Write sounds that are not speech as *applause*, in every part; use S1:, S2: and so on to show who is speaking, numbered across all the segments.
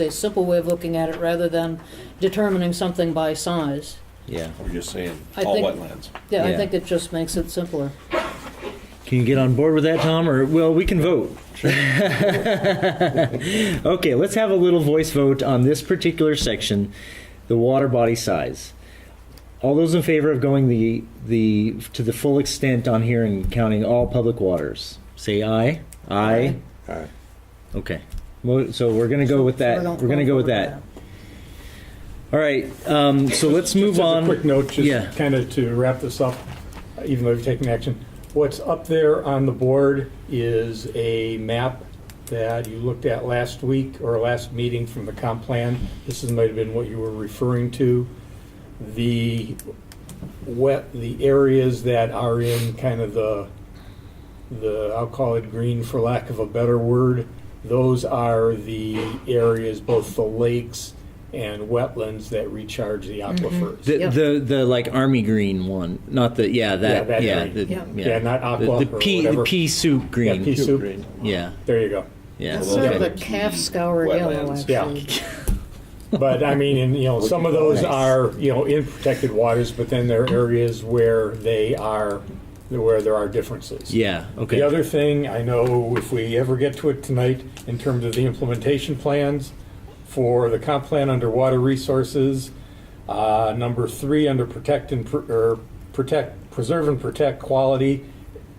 S1: a simple way of looking at it rather than determining something by size.
S2: Yeah.
S3: We're just saying
S1: I
S3: all
S1: think-
S3: wetlands.
S1: Yeah, I
S2: Yeah.
S1: think it just makes it simpler.
S2: Can you get on board with that, Tom? Or, well, we can vote. okay, let's have a little voice vote on this particular section, the water body size. All those in favor of going the, the, to the full extent on here and counting all public waters, say aye. Aye.
S3: Aye.
S2: Okay. Well, So we're gonna go with that. We're gonna go with that. All right, um, so let's move
S4: Just as
S2: on.
S4: a quick note,
S2: Yeah.
S4: just kind of to wrap this up, even though we've taken action. What's up there on the board is a map that you looked at last week or last meeting from the comp plan. This is, might have been what you were referring to. The wet, the areas that are in kind of the, the, I'll call it green for lack of a better word. Those are the areas, both the lakes and wetlands that recharge the aquifers.
S2: The,
S1: Yep.
S2: the the like army green one, not the yeah
S4: Yeah,
S2: that yeah
S4: that
S2: yeah,
S4: green.
S2: the,
S1: Yeah.
S4: Yeah, not aqua
S2: the,
S4: or
S2: the pea the
S4: whatever.
S2: pea soup
S4: Yeah,
S2: green
S4: pea soup.
S3: Green.
S2: yeah
S4: There you go.
S2: yeah
S1: It's
S3: Well,
S1: sort
S2: okay.
S1: of a calf scour yellow,
S3: Wetlands.
S1: actually.
S4: But I mean, and,
S2: *laughs*
S4: you know, some of those are, you know, in protected waters, but then there are areas where they are, where there are differences.
S2: yeah okay
S4: The other thing, I know if we ever get to it tonight, in terms of the implementation plans for the comp plan under water resources, uh, number three, under protect and, pr- or protect, preserve and protect quality,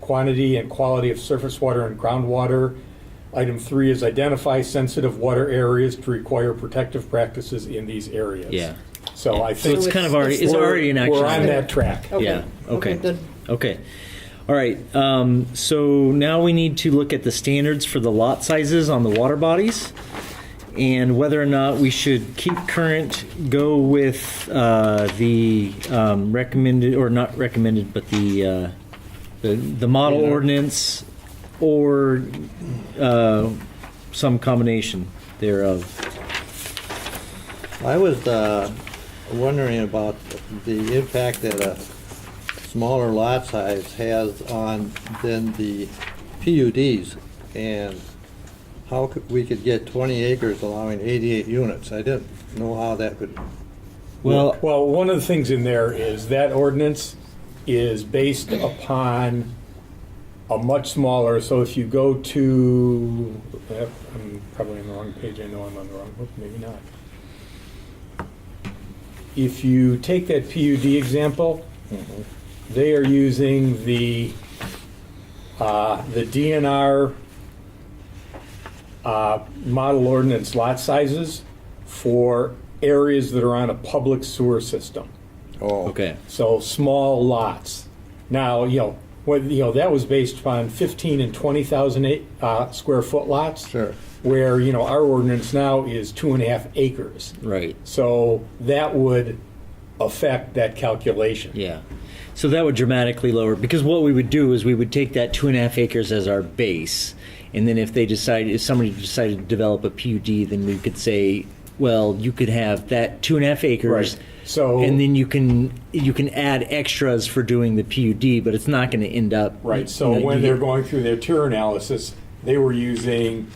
S4: quantity and quality of surface water and groundwater. Item three is identify sensitive water areas to require protective practices in these areas.
S2: yeah
S4: So I
S2: so
S4: think.
S2: it's kind of already it's
S4: we're-
S2: already an action
S4: We're on
S2: item.
S4: that track.
S2: yeah okay
S1: Okay, good.
S2: okay all right um, so now we need to look at the standards for the lot sizes on the water bodies and whether or not we should keep current go with uh, the um, recommended or not recommended but the uh, the, the model ordinance or uh, some combination thereof
S5: I was uh, wondering about the impact that a smaller lot size has on then the PUDs and how could, we could get 20 acres allowing 88 units. I didn't know how that could,
S2: well
S4: Well, one of the things in there is that ordinance is based upon a much smaller, so if you go to, yep, I'm probably on the wrong page, I know I'm on the wrong, book, maybe not. If you take that PUD example, they are using the, uh, the DNR uh, model ordinance lot sizes for areas that are on a public sewer system.
S5: oh,
S2: okay
S4: So small lots. Now, you know, what, you know, that was based upon 15 and 20,000 a- uh, square foot lots.
S5: Sure.
S4: Where, you know, our ordinance now is two and a half acres.
S2: right
S4: So that would affect that calculation.
S2: Yeah. So that would dramatically lower because what we would do is we would take that two and a half acres as our base, and then if they decide if somebody decided to develop a PUD, then we could say, well, you could have that two and a half acres.
S4: Right. So-
S2: and then you can you can add extras for doing the PUD, but it's not going to end up
S4: Right, so
S2: you know,
S4: when
S2: you-
S4: they're going through their tier analysis, they were using,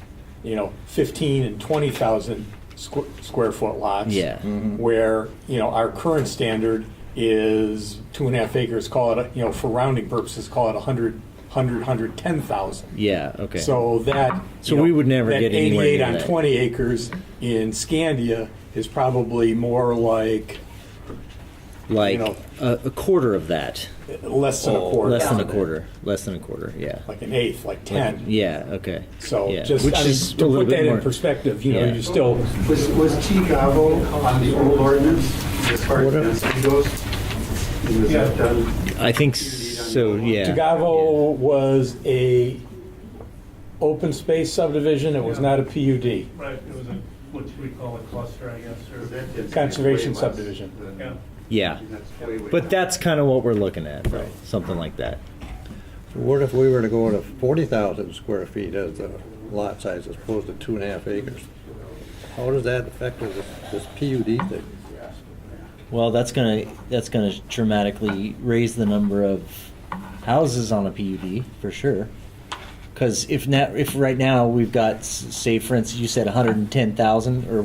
S4: you know, fifteen and twenty thousand squ- square foot lots.
S2: Yeah.
S4: Where, you know, our current standard is two and a half acres, call it, you know, for rounding purposes, call it a hundred, hundred, hundred, ten thousand.
S2: yeah okay
S4: So that.
S2: So
S4: you
S2: we
S4: know,
S2: would never
S4: that
S2: get anywhere
S4: Eighty-eight
S2: near
S4: on
S2: that.
S4: twenty acres in Scandia is probably more like
S2: like
S4: you know-
S2: a, a quarter of that,
S4: less than a
S3: Oh,
S4: quarter.
S2: less than a quarter, less than a quarter, yeah.
S4: Like an eighth, like ten.
S2: yeah, okay.
S4: So
S2: yeah.
S4: just,
S2: which
S4: I mean,
S2: is
S4: to
S2: a little
S4: put
S2: bit
S4: that
S2: more,
S4: in perspective, you know,
S2: Yeah.
S4: you're still,
S6: Was, was Chicago on the old ordinance as far as density goes? And was that done?
S2: I think so. Yeah.
S4: Tagavo was a open space subdivision, it was not a PUD.
S7: Right, it was a, what we call a cluster, I guess,
S6: So
S7: or,
S6: that density is
S4: Conservation
S6: way less
S4: subdivision.
S6: than-
S7: yeah.
S2: Yeah.
S6: That's way, way
S2: But
S6: less.
S2: that's kind of what we're looking at, right? Something like that.
S5: what if we were to go to 40,000 square feet as the lot size as opposed to two and a half acres? How does that affect this this PUD thing?
S2: Well, that's gonna that's gonna dramatically raise the number of houses on a PUD for sure. Because if now, if right now we've got, s- say, for instance, you said 110,000 or